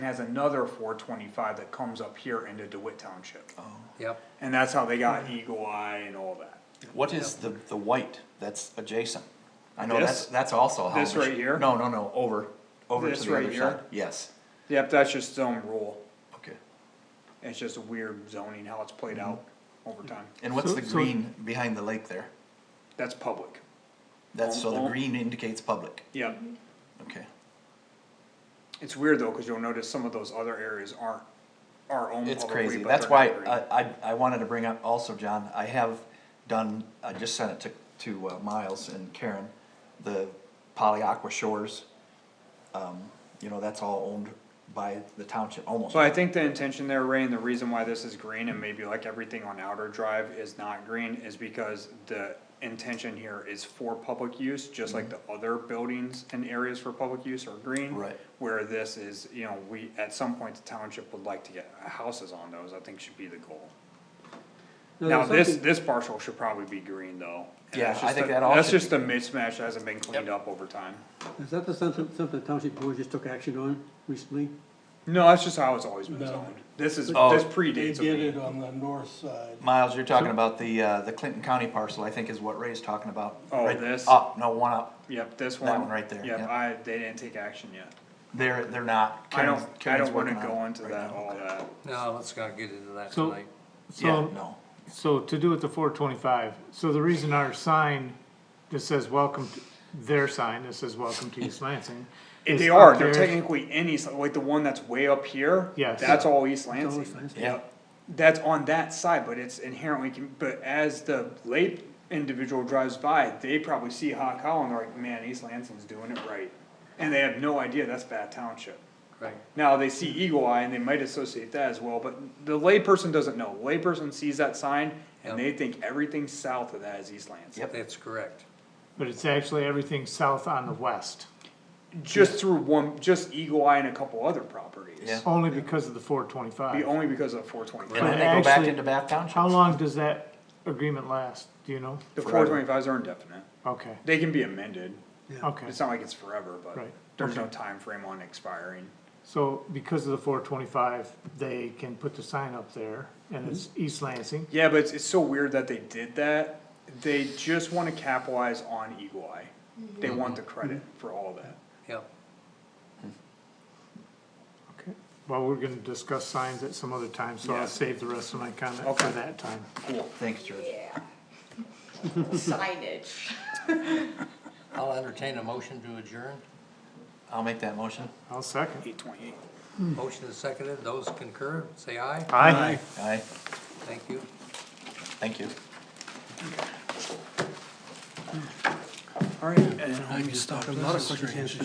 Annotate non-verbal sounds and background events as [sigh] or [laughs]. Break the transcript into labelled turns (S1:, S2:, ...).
S1: has another four twenty-five that comes up here into DeWitt Township.
S2: Oh.
S3: Yep,
S1: And that's how they got Eagle Eye and all that.
S2: What is the, the white that's adjacent? I know
S1: This?
S2: that's, that's also. how
S1: This
S2: we
S1: right
S2: should-
S1: here?
S2: No, no, no, over, over
S1: This
S2: to the
S1: right
S2: other
S1: here?
S2: side, yes,
S1: Yep, that's just zone rule.
S2: okay.
S1: It's just a weird zoning, how it's
S2: Hmm.
S1: played out over time.
S2: And what's
S4: So-
S2: the
S4: so-
S2: green behind the lake there?
S1: That's public.
S2: That's, so
S1: Oh, oh.
S2: the green indicates public,
S1: Yep.
S2: okay.
S1: It's weird though, cause you'll notice some of those other areas aren't our own
S2: It's
S1: public way,
S2: crazy,
S1: but
S2: that's
S1: they're
S2: why
S1: not green.
S2: I, I, I wanted to bring up also, John, I have done, I just sent it to, to uh, Miles and Karen, the Poly Aqua Shores. Um, you know, that's all owned by the township, almost.
S1: So I think the intention there, Ray, and the reason why this is green and maybe like everything on outer drive is not green is because the intention here is for public use, just like the other buildings and areas for public use are green.
S2: Mm-hmm. Right.
S1: Where this is, you know, we, at some point, the township would like to get houses on those, I think should be the goal.
S4: No,
S1: Now,
S4: there's
S1: this,
S4: something-
S1: this parcel should probably be green though. and
S2: Yeah,
S1: that's
S2: I
S1: just
S2: think
S1: a-
S2: that all
S1: That's
S2: should
S1: just a mismatch that hasn't been cleaned up over time.
S4: Is that the something, something the township board just took action on recently?
S1: No, that's just how it's always been
S5: No.
S1: zoned. This is, this
S2: Oh.
S5: They
S1: predates.
S5: did
S1: me.
S5: it on the north side.
S2: Miles, you're talking about the, uh, the Clinton County parcel, I think is what Ray's talking about.
S1: Oh,
S2: Right
S1: this?
S2: Up, no, one up,
S1: Yep, this one.
S2: That one right there,
S1: Yep,
S2: yep.
S1: I, they didn't take action yet.
S2: they're, they're not.
S1: I don't,
S2: Karen's-
S1: I
S2: Karen's
S1: don't wanna
S2: working on
S1: go
S2: it
S1: into
S2: right
S1: that,
S2: now.
S1: all that.
S3: no, let's not get into that
S5: So-
S3: tonight.
S2: Yeah,
S5: So,
S2: no,
S5: so to do with the four twenty-five, so the reason our sign that says welcome, to- their sign that says welcome to
S1: [laughs]
S5: East Lansing.
S1: If
S5: is
S1: They
S5: up
S1: are, they're
S5: there.
S1: technically in East, like the one that's way up here.
S5: Yes.
S1: That's all East
S4: all
S1: Lansing.
S4: East Lansing.
S2: Yeah.
S1: Yep. That's on that side, but it's inherently, con- but as the late individual drives by, they probably see Hot Cow and they're like, man, East Lansing's doing it right. And they have no idea that's bad township.
S3: Right,
S1: Now, they see Eagle Eye and they might associate that as well, but the layperson doesn't know. Layperson sees that sign and they
S3: Yep.
S1: think everything south of that is East Lansing.
S2: Yep.
S3: that's correct.
S5: But it's actually everything south on the west,
S1: Just through one, just Eagle Eye and a couple other properties.
S2: yeah.
S5: only because of the four
S1: Be
S5: twenty-five.
S1: only because of four twenty
S2: And
S1: five.
S2: then they go back
S5: actually-
S2: into Bath Township.
S5: How long does that agreement last, do you know?
S1: The four
S2: Forever.
S1: twenty fives are indefinite.
S5: Okay,
S1: They can be amended.
S5: okay,
S1: It's not like it's forever, but
S5: Right.
S1: there's no
S5: Okay.
S1: time frame on expiring.
S5: so because of the four twenty-five, they can put the sign up there, and it's
S1: Mm-hmm.
S5: East Lansing.
S1: Yeah, but it's, it's so weird that they did that. They just wanna capitalize on Eagle Eye. They
S2: Mm-hmm.
S1: want the credit for all that.
S3: Yep,
S5: Okay. Well, we're gonna discuss signs at some other time, so
S1: Yeah.
S5: I'll save the rest of my comment for
S1: Okay.
S5: that time.
S1: Cool.
S2: Thanks, George.
S6: Yeah. Signage.
S3: I'll entertain a motion to adjourn.
S2: I'll make that motion.
S5: I'll second.
S1: Eight twenty eight.
S3: Motion is seconded, those concur, say aye.
S5: Aye.
S2: Aye,
S3: Thank you.
S2: thank you.
S1: All right, and
S4: I just thought of another circumstance.